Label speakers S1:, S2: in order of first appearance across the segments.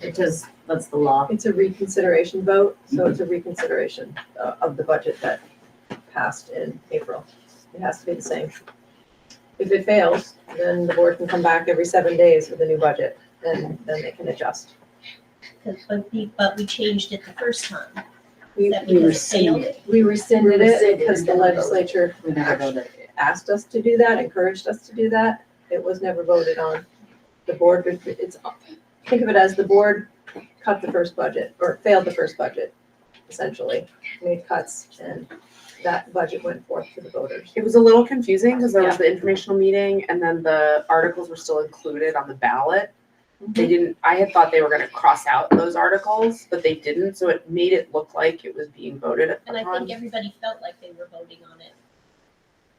S1: It does, that's the law.
S2: It's a reconsideration vote, so it's a reconsideration uh, of the budget that passed in April. It has to be the same. If it fails, then the board can come back every seven days with a new budget, and then they can adjust.
S3: 'Cause- But we, but we changed it the first time.
S2: We-
S3: That
S1: we
S3: because it failed.
S1: rescinded it.
S2: We rescinded it
S1: Rescinded
S2: because the
S1: and voted.
S2: legislature
S1: We never voted.
S2: asked us to do that, encouraged us to do that. It was never voted on. The board, it's, think of it as the board cut the first budget, or failed the first budget, essentially, made cuts, and that budget went forth to the voters.
S4: It was a little confusing because there was the informational meeting and then the articles were still included on the ballot. They didn't, I had thought they were gonna cross out those articles, but they didn't, so it made it look like it was being voted
S3: And I
S4: upon.
S3: think everybody felt like they were voting on it.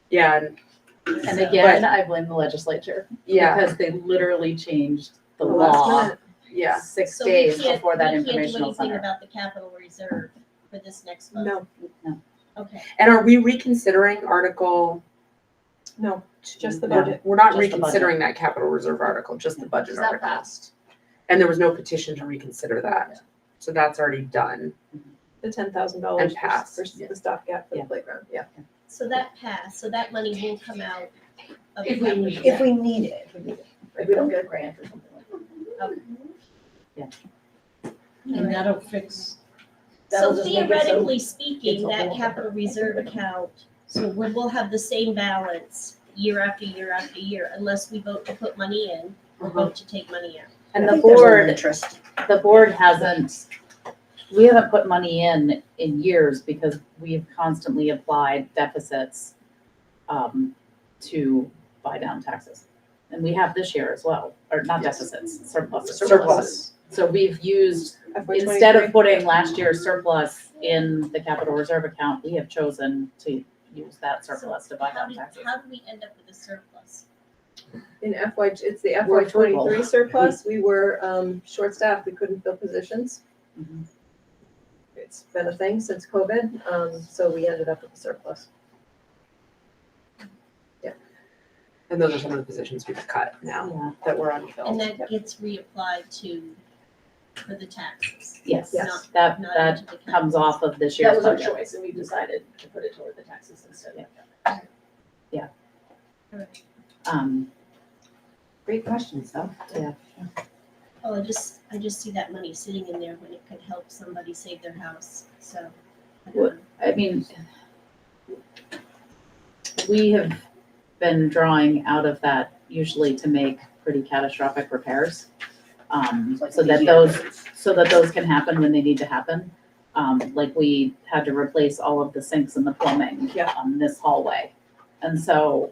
S4: Yeah, and,
S1: And
S3: So-
S1: again, I blame the legislature.
S4: yeah,
S1: Because they literally changed the
S2: The last
S1: law
S2: minute.
S4: yeah.
S1: six
S3: so we
S1: days
S3: can't-
S1: before that
S3: We
S1: informational
S3: can't do anything
S1: center.
S3: about the capital reserve for this next month.
S2: No,
S3: Okay,
S4: And are we reconsidering article?
S2: no, it's just the
S1: No.
S2: budget.
S4: We're not
S1: Just the budget.
S4: reconsidering that capital reserve article, just the budget
S1: Is that
S4: article.
S1: passed?
S4: And there was no petition to reconsider that, so that's already done.
S2: The ten thousand dollars
S4: And pass,
S2: for the stopgap for the
S1: yeah.
S2: playground, yeah.
S3: so that passed, so that money will come out of the
S5: If we
S3: capital.
S5: need, if we need it, if we need it, if we don't get a grant or something like that.
S3: Alright.
S6: And that'll fix,
S5: That'll
S3: So
S5: just make it so-
S3: theoretically speaking,
S5: it's a
S3: that
S5: whole-
S3: capital reserve account, so we will have the same balance year after year after year unless we vote to put money in or
S5: Uh-huh.
S3: vote to take money out.
S1: And
S5: I
S1: the
S5: think there's a little
S1: board,
S5: Interest.
S1: the board hasn't, we haven't put money in in years because we've constantly applied deficits um, to buy down taxes. And we have this year as well, or not deficits, surpluses.
S4: Surplus.
S1: So we've used
S2: FY
S1: Instead
S2: 23.
S1: of putting last year's surplus in the capital reserve account, we have chosen to use that surplus to buy
S3: How
S1: down
S3: did,
S1: taxes.
S3: how did we end up with a surplus?
S2: In FY, it's the
S1: We're
S2: FY
S1: frugal.
S2: twenty-three surplus, we were, um, short-staffed, we couldn't fill positions.
S1: Mhm.
S2: It's been a thing since COVID, um, so we ended up with a surplus.
S4: And those are some of the positions we've cut now
S1: Yeah,
S4: that were
S3: And
S4: unfilled.
S3: that gets reapplied to, for the taxes,
S1: yes,
S3: Yes.
S1: that,
S3: not
S1: that
S3: into the capital.
S1: comes off of this
S5: That
S1: year's
S5: was our
S1: budget.
S5: choice and we decided to put it toward the taxes instead of.
S3: Alright.
S1: Um,
S5: Great questions though.
S3: Oh, I just, I just see that money sitting in there when it could help somebody save their house, so. I don't
S1: What-
S3: know.
S1: I mean, we have been drawing out of that usually to make pretty catastrophic repairs. Um, so that those, so that those can happen when they need to happen. Um, like we had to replace all of the sinks and the plumbing
S2: Yeah.
S1: on this hallway. And so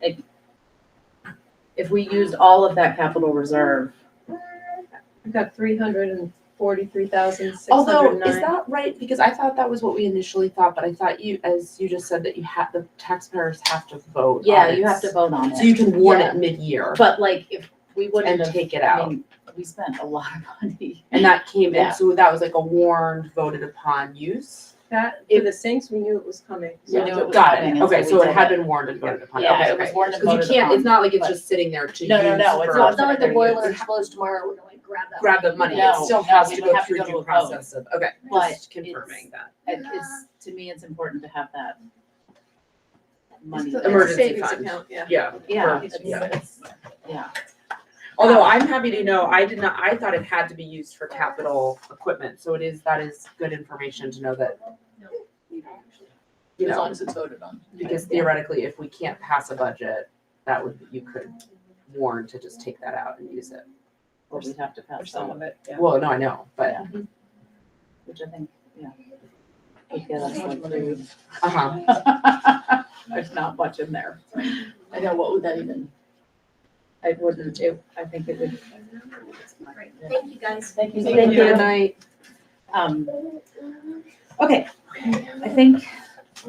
S1: it, if we used all of that capital reserve,
S2: We've got three hundred and forty-three thousand, six hundred
S4: Although,
S2: and
S4: is
S2: nine.
S4: that right? Because I thought that was what we initially thought, but I thought you, as you just said, that you have, the taxpayers have to vote. on
S1: yeah, you
S4: it.
S1: have to vote on
S4: So
S1: it.
S4: you can warn
S1: Yeah.
S4: it mid-year
S1: But like if we wouldn't
S4: and
S1: have,
S4: take it
S1: I
S4: out.
S1: mean, we spent a lot of money.
S4: And that came
S1: Yeah.
S4: in, so that was like a warned, voted upon use?
S2: That, for the sinks, we knew it was coming. so
S1: Yeah.
S2: that's
S1: No,
S2: what we-
S4: Got
S1: coming,
S4: it,
S1: and
S4: okay,
S1: so
S4: so
S1: we
S4: it
S1: did
S4: had
S1: it.
S4: been warned and voted upon,
S1: Yeah,
S4: okay,
S1: it was
S4: okay.
S1: warned and
S4: Cause
S1: voted
S4: you can't,
S1: upon,
S4: it's not like it's
S1: but-
S4: just sitting there to use
S1: No, no, no, it's
S4: for-
S5: So it's not like the
S4: They're gonna
S5: boiler
S4: use.
S5: explodes tomorrow, we're gonna like grab that.
S4: Grab the money, it
S1: No,
S4: still
S1: no,
S4: has
S1: we
S4: to
S1: would
S4: go
S1: have to
S4: through
S1: go to a
S4: due
S1: vote.
S4: process of, okay,
S1: But
S4: just confirming that.
S1: It- It's, to me, it's important to have that
S2: It's
S1: money.
S2: the- it's
S1: there.
S2: the
S4: Emergency
S2: savings
S4: fund.
S2: account, Yeah.
S4: Yeah,
S1: Yeah,
S4: for-
S1: it's-
S4: yeah.
S1: it's- yeah.
S4: although I'm happy to know, I did not, I thought it had to be used for capital equipment, so it is, that is good information to know that, you
S5: As
S4: know,
S5: long as it's voted on.
S4: because theoretically, if we can't pass a budget, that would, you could warn to just take that out and use it.
S1: Or we'd have to
S2: Or
S1: pass
S2: some
S1: some,
S2: of it, yeah.
S4: Well, no, I know, but,
S1: which I think, yeah. Would get us like through.
S4: uh-huh,
S1: There's not much in there.
S5: I know, what would that even?
S1: I wouldn't, it, I think it would.
S3: Great, thank you guys.
S5: Thank you.
S2: Thank you. Good night.
S1: Um, okay, I think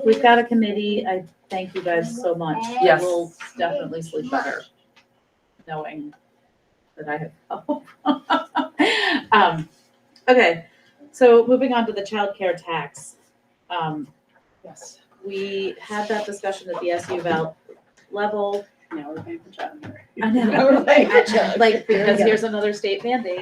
S1: we've got a committee. I thank you guys so much.
S4: Yes.
S1: We'll definitely sleep better knowing that I have help. Um, okay, so moving on to the childcare tax. Um,
S5: Yes,
S1: we had that discussion at the SU val level.
S5: now we're paying for child care.
S1: I know.
S5: Now we're paying for child care.
S1: Like, because
S5: Yeah.
S1: here's another state mandate,